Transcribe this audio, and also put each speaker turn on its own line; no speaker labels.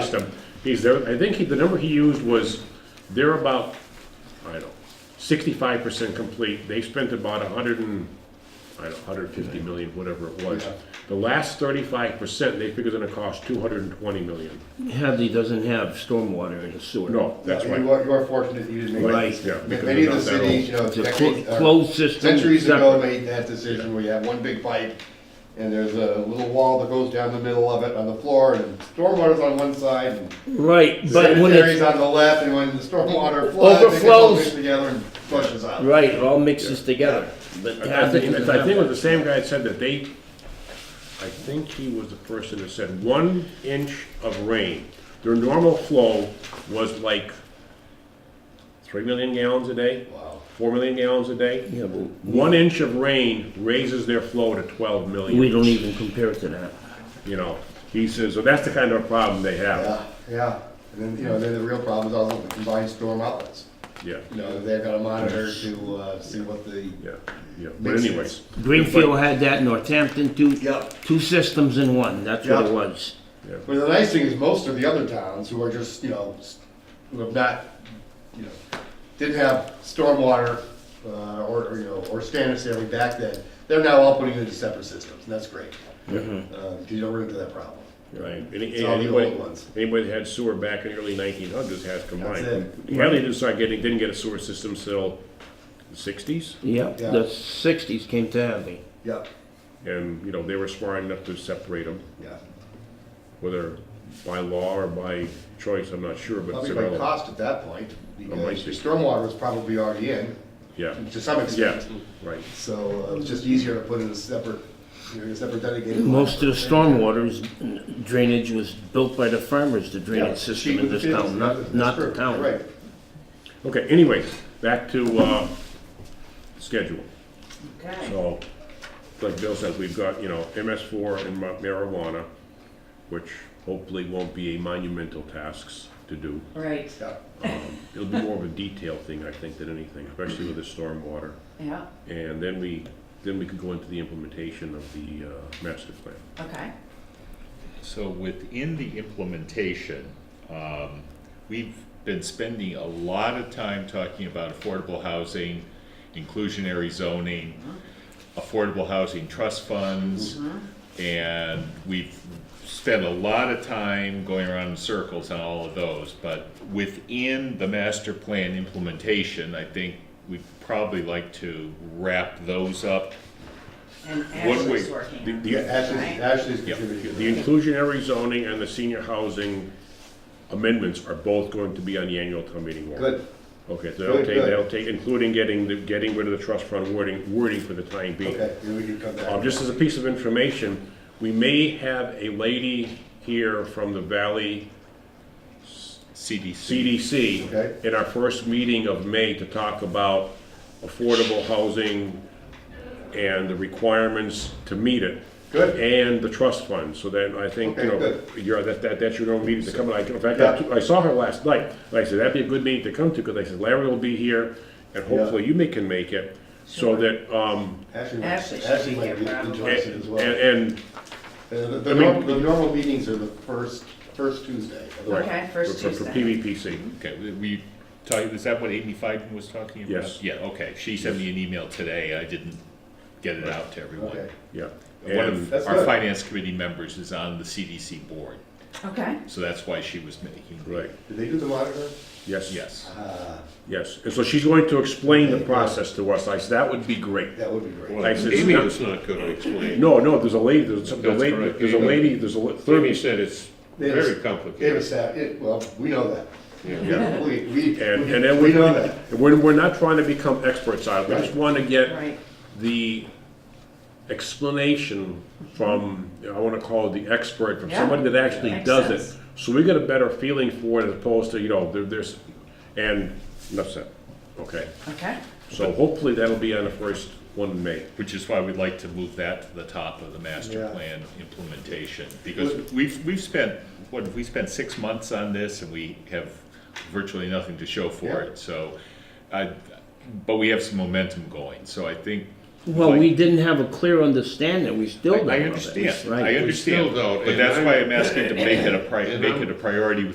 system, he's there, I think he, the number he used was, they're about, I don't know, sixty-five percent complete, they spent about a hundred and, I don't know, hundred fifty million, whatever it was.
Yeah.
The last thirty-five percent, they figure's gonna cost two hundred and twenty million.
Hadley doesn't have stormwater in the sewer.
No, that's
You
right.
are, you are fortunate you didn't make.
Right.
it.
Yeah, because
Many of the
without that
cities, you know,
It's a clo-
decades, uh,
closed system.
centuries ago,
separate.
made that decision where you have one big pipe and there's a little wall that goes down the middle of it on the floor and stormwater's on one side and
Right, but when
sanitary's
it's,
on the left and when the stormwater floods, it gets all
Overflows.
mixed together and flushes out.
right, it all mixes together. But
I
Hadley
think, I
doesn't
think it was
have
the same guy that said that they, I think he was the person that said one inch of rain, their normal flow was like three million gallons a day,
Wow.
four million gallons a day.
Yeah, but
One inch of rain raises their flow to twelve
we
million,
don't even compare it to that.
you know? He says, so that's the kind of problem they have,
Yeah, yeah. And then, you know, then the real problem is also the combined storm outlets.
yeah,
You know, they've got to monitor to, uh, see what the,
yeah, yeah, but
Makes sense.
anyways.
Greenfield had that, Northampton, two,
Yep.
two systems in one, that's what
Yep.
it was.
Yeah.
But the nice thing is most of the other towns who are just, you know, s- who have not, you know, didn't have stormwater, uh, or, or, you know, or standard sailing back then, they're now all putting into separate systems, and that's great.
Mm-hmm.
Uh, you don't run into that problem.
Right, any,
It's all the
anybody,
old ones.
anybody that had sewer back in the early nineteen hundreds has combined.
That's
Hadley didn't start getting, didn't get a sewer system till the sixties,
Yep,
Yeah.
the sixties came to Hadley.
Yep,
and, you know, they were smart enough to separate them,
yeah.
whether by law or by choice, I'm not sure, but. it's
Probably by
irrelevant.
cost at that point,
Oh,
because
might
your
be.
stormwater was probably already in,
Yeah,
to some
yeah,
extent.
right,
So uh, it was just easier to put in a separate, you know, a separate dedicated. line
Most
for
of the
thing.
stormwater is- drainage was built by the farmers, the
Yeah,
drainage
sheet
system in
with the
this town,
fields,
not,
that's
not the
true,
town.
Right.
okay, anyways, back to, uh, schedule.
Okay,
So, like Bill says, we've got, you know, MS four and ma- marijuana, which hopefully won't be a monumental tasks to do. Um,
right,
Yeah.
It'll be more of a detail thing, I think, than anything, especially with the stormwater.
yeah,
And then we, then we could go into the implementation of the uh, master plan.
okay,
So within the implementation, um, we've been spending a lot of time talking about affordable housing, inclusionary zoning, affordable housing trust funds, and we've spent a lot of time going around in circles on all of those, but within the master plan implementation, I think we'd probably like to wrap those up.
and
way-
Ashley's working on
the-
it,
the-
Yeah, Ashley's,
right?
Ashley's
Yep.
contributing.
The inclusionary zoning and the senior housing amendments are both going to be on the annual town meeting warrant.
Good,
Okay, so they'll
Good,
take,
good.
they'll take, including getting, the getting rid of the trust fund wording, wording for the time being.
okay, then we can come back.
Um, just as a piece of information, we may have a lady here from the Valley
CDC.
CDC
Okay.
in our first meeting of May to talk about affordable housing and the requirements to meet it.
Good.
And the trust fund, so then I think, you
Okay,
know, you're, that, that, that's your own meeting to come, and I, in fact,
Yeah.
I- I saw her last night, and I said, that'd be a good meeting to come to, because I said, Larry will be here, and hopefully you may can make it, so that, um,
Ashley, might-
Ashley should
Ashley
be
might
here
be
probably.
interested
and,
as
and,
well. Uh,
and
The, the-
I
the,
mean-
norm- the normal meetings are the first, first Tuesday. of the
Right.
Okay,
for,
first
for for
Tuesday.
PVPC.
Okay, we- we, talk- is that what Amy Fiden was talking about?
Yes.
Yeah, okay, she sent me an email today, I didn't get it out to
month.
everyone.
Okay,
Yeah.
One
And-
of
That's
our
good.
finance committee members is on the CDC board,
Okay,
so that's why she was making. the-
Right,
did they do the monitor?
yes.
Yes,
Uh,
Yes, and so she's going to explain the process to us, I said, that would be great.
that would be great.
I said, "It's not-
not gonna explain.
No, no, there's a lady, there's some, the
That's
lady,
correct.
there's a lady, there's a li-
Amy
thirty,
said it's
They have a-
very
They have a
complicated.
staff, it, well, we know that.
Yeah.
We, we,
and, and then we.
we know that.
We're, we're not trying to become experts on it, we just
Right.
wanna get
right,
the explanation from, I wanna call it the expert, from
Yeah.
somebody that actually
Makes
does it.
sense.
So we get a better feeling for it as opposed to, you know, there, there's, and, that's it, okay?
okay,
So hopefully that'll be on the first one in May.
which is why we'd like to move that to the top of the master
Yeah.
plan implementation, because we've, we've spent, what, we spent six months on this and we have virtually nothing to show for
Yeah.
it, so. I, but we have some momentum going, so I think
Well,
Like-
we didn't have a clear understanding, we still
I
don't.
I
have it.
understand,
Right,
I
we still
understand,
don't,
but
and
that's
I-
why I'm asking to make it a pri,
and
make
I'm-
it a priority